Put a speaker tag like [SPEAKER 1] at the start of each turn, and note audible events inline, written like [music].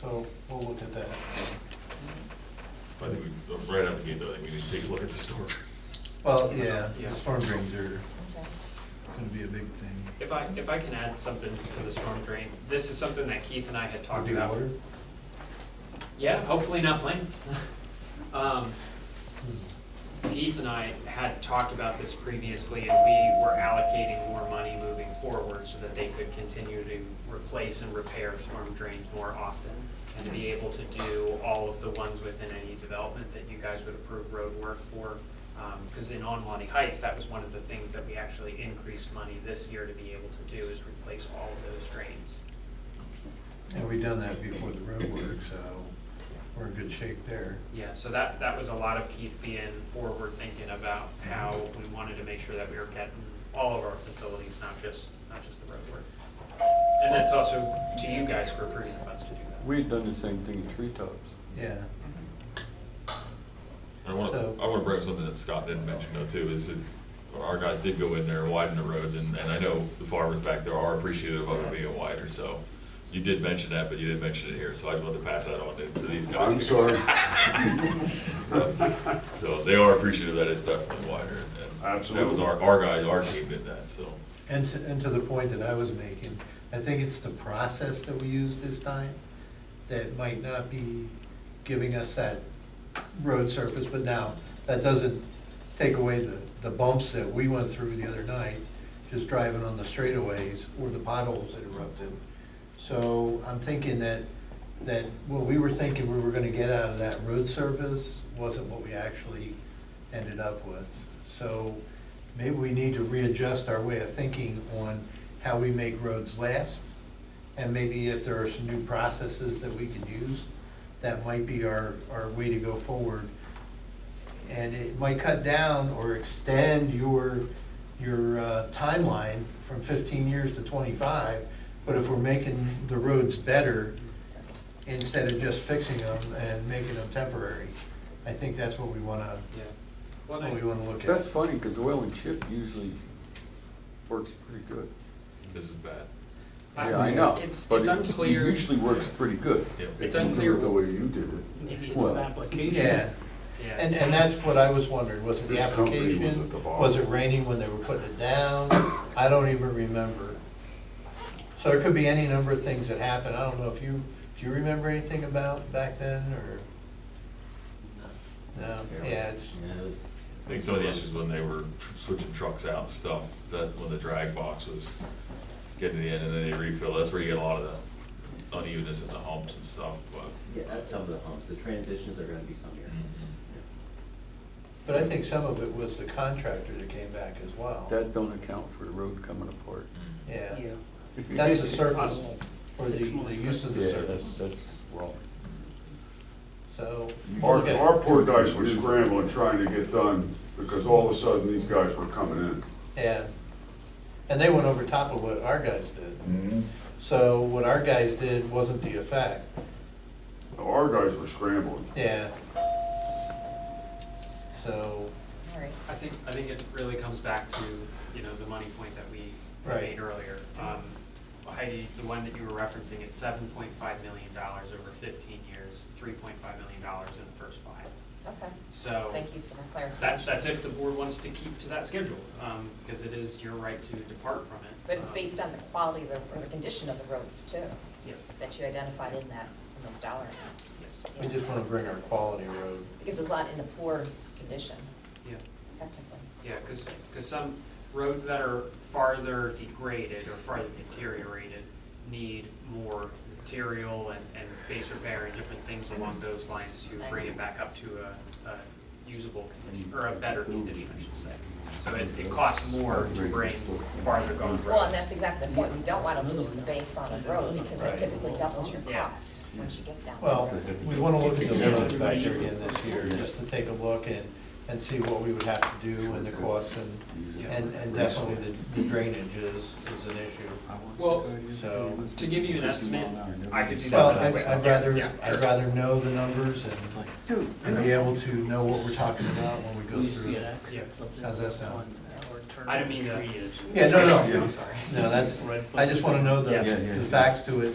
[SPEAKER 1] so we'll look at that.
[SPEAKER 2] I think we, right out the gate though, I think we need to take a look at the storm.
[SPEAKER 1] Well, yeah,
[SPEAKER 3] Yeah.
[SPEAKER 1] the storm drains are
[SPEAKER 4] Okay.
[SPEAKER 1] gonna be a big thing.
[SPEAKER 3] If I, if I can add something to the storm drain, this is something that Keith and I had talked
[SPEAKER 1] Do
[SPEAKER 3] about.
[SPEAKER 1] water?
[SPEAKER 3] Yeah, hopefully not planes. [laughs] Um,
[SPEAKER 1] Hmm.
[SPEAKER 3] Keith and I had talked about this previously, and we were allocating more money moving forward so that they could continue to replace and repair storm drains more often and be able to do all of the ones within any development that you guys would approve road work for. Because in Onwani Heights, that was one of the things that we actually increased money this year to be able to do is replace all of those drains.
[SPEAKER 1] And we done that before the road work, so we're in good shape there.
[SPEAKER 3] Yeah, so that, that was a lot of Keith being forward thinking about how
[SPEAKER 5] Mm-hmm.
[SPEAKER 3] we wanted to make sure that we were getting all of our facilities, not just, not just the road work. And that's also to you guys for approving the funds to do that.
[SPEAKER 5] We had done the same thing at Treetops.
[SPEAKER 1] Yeah,
[SPEAKER 2] And I want
[SPEAKER 1] So-
[SPEAKER 2] to, I want to bring up something that Scott didn't mention though too, is that our guys did go in there and widen the roads and, and I know the farmers back there are appreciative of it being wider, so. You did mention that, but you didn't mention it here, so I just wanted to pass that on to, to these guys.
[SPEAKER 6] I'm sorry,
[SPEAKER 2] [laughs] So they are appreciative that it's definitely wider and- and. That was
[SPEAKER 6] Absolutely.
[SPEAKER 2] our, our guys, our team did that, so.
[SPEAKER 1] and to, and to the point that I was making, I think it's the process that we use this time that might not be giving us that road surface, but now, that doesn't take away the, the bumps that we went through the other night, just driving on the straightaways or the potholes that erupted. So I'm thinking that, that what we were thinking we were gonna get out of that road surface wasn't what we actually ended up with. So maybe we need to readjust our way of thinking on how we make roads last. And maybe if there are some new processes that we can use, that might be our, our way to go forward. And it might cut down or extend your, your uh, timeline from fifteen years to twenty-five. But if we're making the roads better instead of just fixing them and making them temporary, I think that's what we wanna,
[SPEAKER 3] Yeah. Well,
[SPEAKER 5] Oh,
[SPEAKER 1] what we
[SPEAKER 3] I-
[SPEAKER 1] Oh, wanna look
[SPEAKER 5] That's
[SPEAKER 1] at.
[SPEAKER 5] funny, because oil and chip usually works pretty good.
[SPEAKER 2] This is bad.
[SPEAKER 3] I-
[SPEAKER 5] Yeah, I know.
[SPEAKER 3] It's,
[SPEAKER 5] but
[SPEAKER 3] it's
[SPEAKER 5] it
[SPEAKER 3] unclear.
[SPEAKER 5] Usually works pretty good.
[SPEAKER 2] Yep.
[SPEAKER 3] It's
[SPEAKER 6] If you do it
[SPEAKER 3] unclear.
[SPEAKER 6] The way you did it.
[SPEAKER 5] Well,
[SPEAKER 1] Yeah,
[SPEAKER 3] Yeah.
[SPEAKER 1] and, and that's what I was wondering, was it the
[SPEAKER 6] This company was
[SPEAKER 1] application?
[SPEAKER 6] at the bottom.
[SPEAKER 1] Was it raining when they were putting it down? I don't even remember. So there could be any number of things that happened. I don't know if you, do you remember anything about back then, or? No, yeah, it's,
[SPEAKER 2] I think some of the issues when they were tr- switching trucks out and stuff, that when the drag box was getting to the end and then they refill, that's where you get a lot of the unevenness in the humps and stuff, but.
[SPEAKER 7] Yeah, that's some of the humps, the transitions are gonna be some here.
[SPEAKER 1] but I think some of it was the contractor that came back as well.
[SPEAKER 5] That don't account for the road coming apart.
[SPEAKER 3] Mm-hmm.
[SPEAKER 1] Yeah, that's the surface, or the, the use of the
[SPEAKER 5] Yeah,
[SPEAKER 1] surface,
[SPEAKER 5] that's, that's wrong.
[SPEAKER 1] so.
[SPEAKER 6] Our,
[SPEAKER 1] okay.
[SPEAKER 6] our poor guys were scrambling, trying to get done, because all of a sudden, these guys were coming
[SPEAKER 1] Yeah, and they went over top of what our guys did.
[SPEAKER 6] in.
[SPEAKER 1] So what our guys did wasn't the effect,
[SPEAKER 6] Our guys were scrambling.
[SPEAKER 1] yeah. So,
[SPEAKER 4] All right.
[SPEAKER 3] I think, I think it really comes back to, you know, the money point that we
[SPEAKER 1] Right.
[SPEAKER 3] made earlier. Um, Heidi, the one that you were referencing, it's seven point five million dollars over fifteen years, three point five million dollars in the first five.
[SPEAKER 4] Okay,
[SPEAKER 3] So.
[SPEAKER 4] thank you for the clarification.
[SPEAKER 3] That's, that's if the board wants to keep to that schedule, um, because it is your right to depart from it.
[SPEAKER 4] But it's
[SPEAKER 3] Um,
[SPEAKER 4] based on the quality of the, or the condition of the roads too,
[SPEAKER 3] Yes,
[SPEAKER 4] that you identified in that, in those dollar amounts.
[SPEAKER 3] yes,
[SPEAKER 1] we just wanna bring our quality road,
[SPEAKER 4] Because it's not in a poor condition,
[SPEAKER 3] yeah,
[SPEAKER 4] technically.
[SPEAKER 3] yeah, because, some roads that are farther degraded or farther deteriorated need more material and, and base repair and different things
[SPEAKER 1] Mm-hmm.
[SPEAKER 3] along those lines to bring it back up to a, a usable condition, or
[SPEAKER 1] Mm-hmm.
[SPEAKER 3] a better condition, I should say. So it, it costs more
[SPEAKER 1] Mm-hmm.
[SPEAKER 3] to bring farther gone roads.
[SPEAKER 4] Well, and that's exactly the point, you don't wanna lose the base on a road because it
[SPEAKER 1] Right.
[SPEAKER 4] typically doubles your
[SPEAKER 3] Yeah.
[SPEAKER 4] cost once you get down.
[SPEAKER 1] well, we wanna look at the road factor again this year, just to take a look and, and see what we would have to do and the costs and, and, and definitely the- the drainage is, is an issue.
[SPEAKER 3] Well,
[SPEAKER 1] So-
[SPEAKER 3] to give you an estimate, I could do
[SPEAKER 1] Well,
[SPEAKER 3] that.
[SPEAKER 1] I'd, I'd rather,
[SPEAKER 3] Yeah,
[SPEAKER 1] I'd rather know the numbers and, and be able to know what we're talking about when we go through.
[SPEAKER 3] Yeah.
[SPEAKER 1] How's that sound?
[SPEAKER 3] I didn't mean to.
[SPEAKER 1] Yeah, no, no,
[SPEAKER 3] I'm sorry.
[SPEAKER 1] no, that's, I just wanna know the,
[SPEAKER 3] Yeah.
[SPEAKER 1] the facts to it